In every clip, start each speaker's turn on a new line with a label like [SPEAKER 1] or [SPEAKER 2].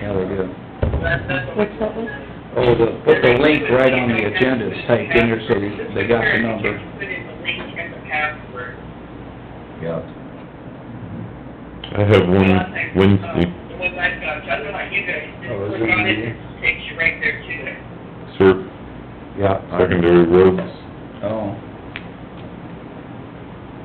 [SPEAKER 1] Yeah, they do.
[SPEAKER 2] What's that one?
[SPEAKER 1] Oh, the, put the link right on the agenda is typed in there, so they got the number.
[SPEAKER 3] Put in the link and the password.
[SPEAKER 1] Yeah.
[SPEAKER 4] I have one Wednesday
[SPEAKER 3] The ones I've got, so I don't know about you guys, just
[SPEAKER 1] Oh, is
[SPEAKER 3] click
[SPEAKER 1] it
[SPEAKER 3] on it,
[SPEAKER 1] easy?
[SPEAKER 3] it takes you right there to it.
[SPEAKER 4] sur-
[SPEAKER 1] Yeah.
[SPEAKER 4] secondary roads.
[SPEAKER 1] Oh.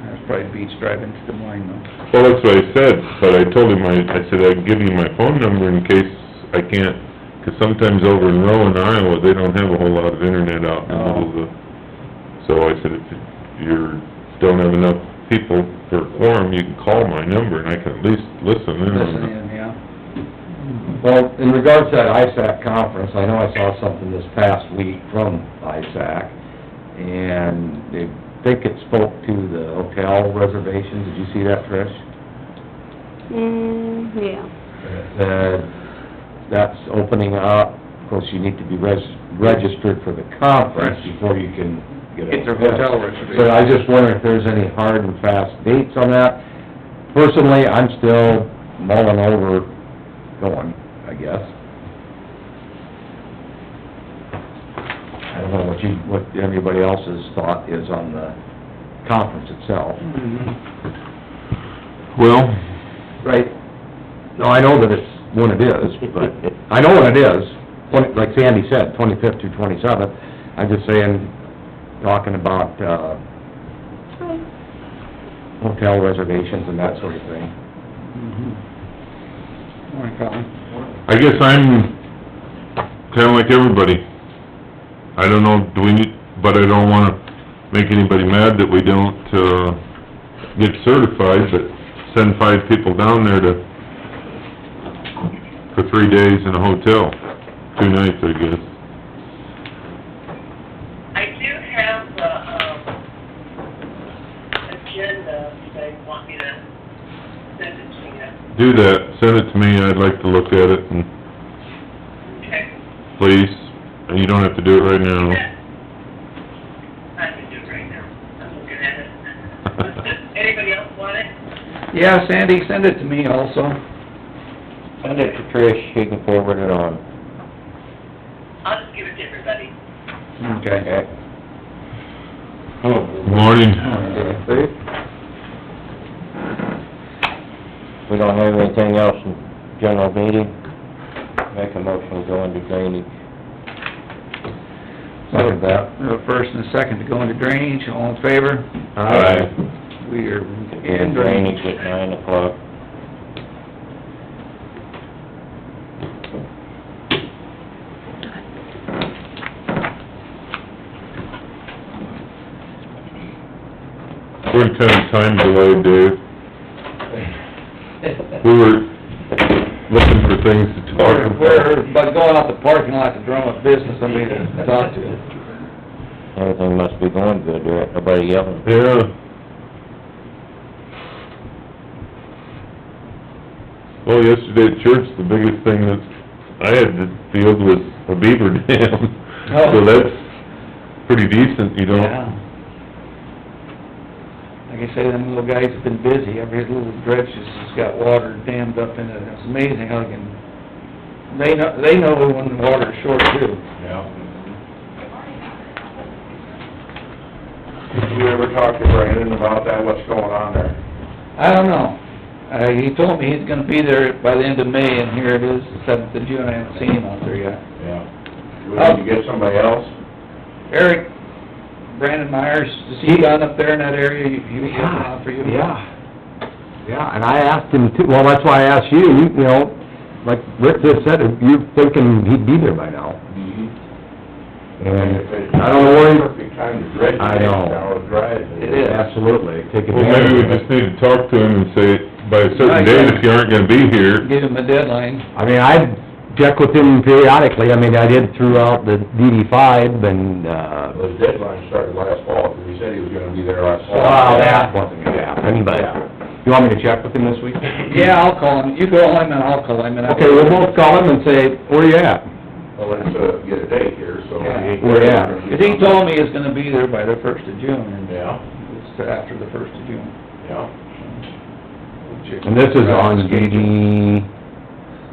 [SPEAKER 1] That's probably beach driving to Des Moines though.
[SPEAKER 4] Well, that's what I said, but I told him, I, I said, I'd give you my phone number in case I can't, 'cause sometimes over in Rowan, Iowa, they don't have a whole lot of internet out in the middle of the... So I said, if you don't have enough people for a quorum, you can call my number and I can at least listen in
[SPEAKER 1] Listen
[SPEAKER 4] on it.
[SPEAKER 1] in, yeah.
[SPEAKER 5] Mm-hmm. Well, in regards to that ISAC conference, I know I saw something this past week from ISAC, and they think it spoke to the hotel reservations, did you see that, Trish?
[SPEAKER 2] Mm, yeah.
[SPEAKER 5] It Said, uh, that's opening up, of course, you need to be res- registered for the conference before you can get a...
[SPEAKER 1] Get their hotel
[SPEAKER 5] So
[SPEAKER 1] reservation.
[SPEAKER 5] I just wonder if there's any hard and fast dates on that. Personally, I'm still mulling over going, I guess. I don't know what you, what everybody else's thought is on the conference itself.
[SPEAKER 4] Well,
[SPEAKER 5] Right. No, I know that it's when it is, but, I know when it is, Twenty- like Sandy said, twenty-fifth through twenty-seventh. I'm just saying, talking about, uh, hotel reservations and that sort of thing.
[SPEAKER 1] Mhm. Morning, Colin.
[SPEAKER 4] I guess I'm kinda like everybody. I don't know, do we need, but I don't wanna make anybody mad that we don't, uh, get certified, but send five people down there to, for three days in a hotel, two nights, I guess.
[SPEAKER 3] I do have the, um, agenda, if you guys want me to send it to you.
[SPEAKER 4] Do that, send it to me, I'd like to look at it and
[SPEAKER 3] Okay.
[SPEAKER 4] please, and you don't have to do it right now.
[SPEAKER 3] I can do it right now. I'm looking at it. Anybody else want it?
[SPEAKER 1] Yeah, Sandy, send it to me also.
[SPEAKER 5] Send it to Trish, she can forward it on.
[SPEAKER 3] I'll just give it to everybody.
[SPEAKER 1] Okay.
[SPEAKER 5] Oh,
[SPEAKER 4] Morning.
[SPEAKER 5] We don't have anything else in general meeting? Make a motion to go into drainage. Second that.
[SPEAKER 1] We have a first and a second to go into drainage, all in favor? We are in drainage.
[SPEAKER 5] at nine o'clock.
[SPEAKER 4] We're kind of time delayed, Dave. We were looking for things to talk
[SPEAKER 1] We're,
[SPEAKER 4] about.
[SPEAKER 1] we're- but going out the parking lot to drum up business, somebody to talk to.
[SPEAKER 5] Everything must be going good, there ain't nobody yelling.
[SPEAKER 4] Yeah. Well, yesterday at church, the biggest thing that I had to deal with was a beaver dam. So
[SPEAKER 1] Oh.
[SPEAKER 4] that's pretty decent, you know?
[SPEAKER 1] Yeah. Like I say, them little guys have been busy, every little dredge has just got water dammed up in it, it's amazing how they can, they know, they know when the water's short too.
[SPEAKER 6] Did you ever talk to Brandon about that, what's going on there?
[SPEAKER 1] I don't know, uh, he told me he's gonna be there by the end of May, and here it is, the seventh of June, I haven't seen him out there yet.
[SPEAKER 6] Yeah. We need to get somebody else?
[SPEAKER 1] Eric, Brandon Myers, is he down up there in that area, he, he was looking out for you?
[SPEAKER 5] Yeah, yeah, and I asked him too, well, that's why I asked you, you you know, like Rick just said, you're thinking he'd be there by now. And I don't know where he
[SPEAKER 6] Mm-hmm. Perfect time to dredge it
[SPEAKER 5] I know.
[SPEAKER 6] now, it's dry.
[SPEAKER 1] It is.
[SPEAKER 5] Absolutely, take
[SPEAKER 4] Well,
[SPEAKER 5] advantage
[SPEAKER 4] maybe we
[SPEAKER 5] of it.
[SPEAKER 4] just need to talk to him and say, by a certain date, if you aren't gonna be here,
[SPEAKER 1] Give him a deadline,
[SPEAKER 5] I mean, I check with him periodically, I mean, I did throughout the DD five and, uh,
[SPEAKER 6] Well, his deadline started last fall, because he said he was gonna be there last fall.
[SPEAKER 5] well, that wasn't gonna happen, but, you want me to check with him this week?
[SPEAKER 1] yeah, I'll call him, you call him and I'll call him and I'll...
[SPEAKER 5] Okay, we'll both call him and say, where you at?
[SPEAKER 6] Well, let's, uh, get a date here, so.
[SPEAKER 1] Yeah.
[SPEAKER 5] Where at?
[SPEAKER 1] Cause he told me he's gonna be there by the first of June, and uh,
[SPEAKER 6] Yeah,
[SPEAKER 1] it's after the first of June.
[SPEAKER 6] yeah.
[SPEAKER 5] And this is on DD